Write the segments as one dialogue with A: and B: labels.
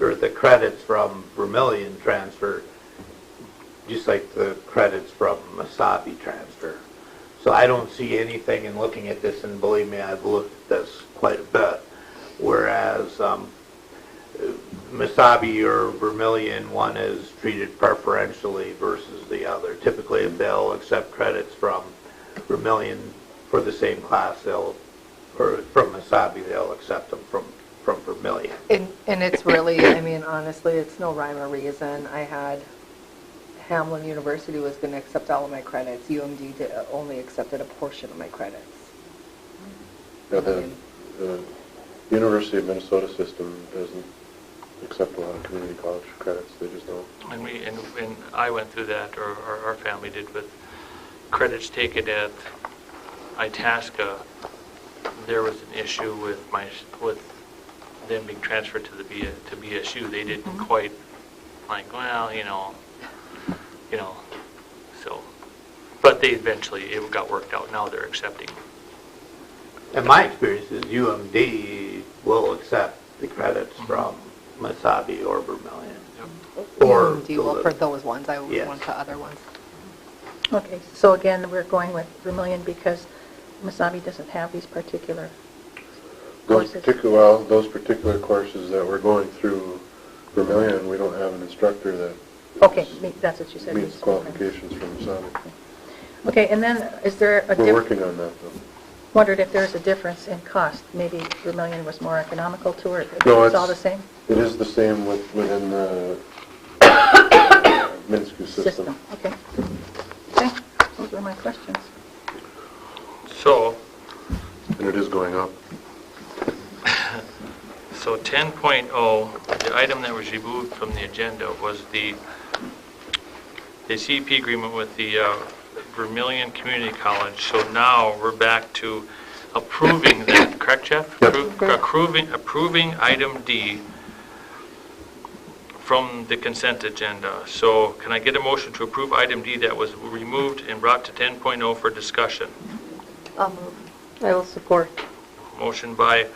A: or the credits from Vermillion transfer, just like the credits from Masabi transfer. So I don't see anything in looking at this, and believe me, I've looked at this quite a bit, whereas um, Masabi or Vermillion, one is treated preferentially versus the other. Typically, if they'll accept credits from Vermillion for the same class, they'll, or from Masabi, they'll accept them from, from Vermillion.
B: And, and it's really, I mean, honestly, it's no rhyme or reason. I had, Hamlin University was going to accept all of my credits. UMD did- only accepted a portion of my credits.
C: Now, The the uh, University of Minnesota system doesn't accept a lot of community college credits, they just don't.
D: And we, and, and I went through that, or our, our family did with credits taken at Itasca. There was an issue with my, with them being transferred to the B, to BSU. They didn't quite, like, well, you know, you know, so, but they eventually, it got worked out. Now they're accepting.
A: And my experience is UMD will accept the credits
E: Mm-hmm.
A: from Masabi or Vermillion. Or
B: UMD will for those ones, I
A: Yes.
B: went to other ones.
F: Okay, so again, we're going with Vermillion because Masabi doesn't have these particular
C: Those
F: courses.
C: particular, well, those particular courses that we're going through Vermillion, we don't have an instructor that
F: Okay, me- that's what you said.
C: meets qualifications from Masonic.
F: Okay, and then is there a
C: We're
F: difference?
C: working on that, though.
F: Wondered if there's a difference in cost? Maybe Vermillion was more economical to her?
C: No,
F: It's all the same?
C: It is the same with, within the Minsku system.
F: Okay. Okay, those were my questions.
D: So,
C: And it is going up.
D: So 10.0, the item that was removed from the agenda was the, the CEP agreement with the uh, Vermillion Community College. So now we're back to approving that, correct, Jeff?
C: Yep.
D: Appro- Approving, approving item D from the consent agenda. So can I get a motion to approve item D that was removed and brought to 10.0 for discussion?
B: Um, I will support.
D: Motion by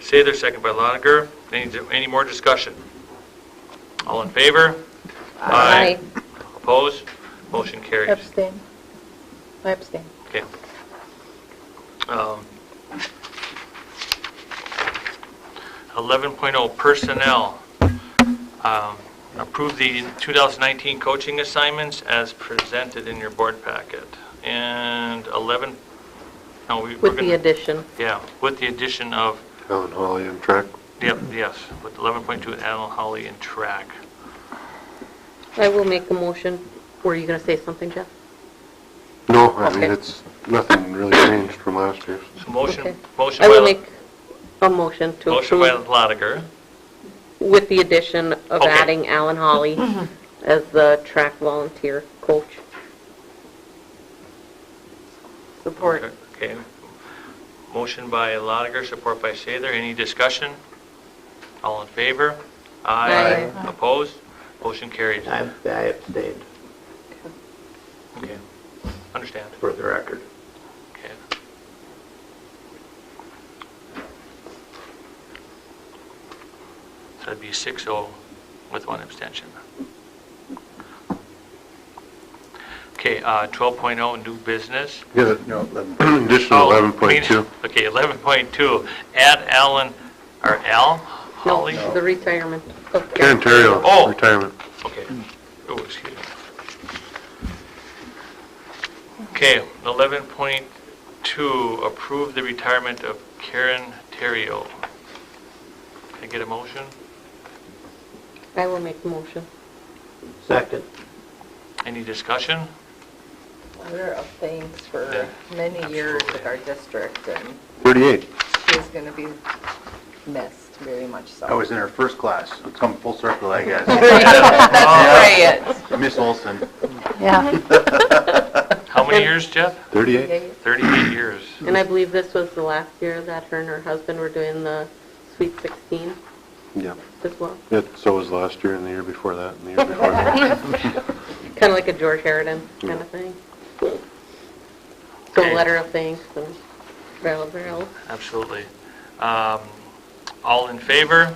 D: Sather, second by Lotiger. Any, any more discussion? All in favor? Aye. Opposed? Motion carries.
F: Abstain. I abstain.
D: Okay. Um, 11.0 Personnel. Um, Approve the 2019 coaching assignments as presented in your board packet. And 11, no, we... With the addition. Yeah, with the addition of
C: Alan Hawley and track.
D: Yep, yes, with 11.2 Alan Holly and track.
G: I will make a motion. Were you going to say something, Jeff?
C: No, I mean,
G: Okay.
C: it's, nothing really changed from last year's.
D: So motion,
G: Okay.
D: motion
G: I will
D: by,
G: make a motion to
D: motion by
G: approve
D: Lotiger.
G: with the addition of
D: Okay.
G: adding Alan Holly as the track volunteer coach.
D: Support. Okay. Motion by Lotiger, support by Sather. Any discussion? All in favor? Aye. Opposed? Motion carries.
A: I I abstained,
D: Okay. Understand.
A: for the record.
D: Okay. So that'd be 6-0 with one abstention. Okay, uh, 12.0, new business.
C: Yeah,
E: No, 11.
C: additional
D: Oh,
C: eleven point two.
D: Okay, 11.2, add Alan, or Al Holly?
G: No, the retirement of
C: Karen Terrio,
D: Oh.
C: retirement.
D: Okay. Oh, excuse me. Okay, 11.2, approve the retirement of Karen Terrio. Can I get a motion?
G: I will make the motion.
A: Second.
D: Any discussion?
B: There are things for
D: Yeah,
B: many years with
D: absolutely.
B: our district, and
C: Thirty-eight.
B: she's going to be missed very much so.
E: I was in her first class. It's come full circle, I guess.
B: That's right.
E: Miss Olson.
F: Yeah.
D: How many years, Jeff?
C: Thirty-eight?
D: 38 years.
G: And I believe this was the last year that her and her husband were doing the Sweet 16
C: Yeah.
G: as well.
C: It, so was last year and the year before that and the year before that.
G: Kind of like a George Harridan kind of thing. So
D: Okay.
G: letter of thanks and barrel, barrel.
D: Absolutely. Um, All in favor?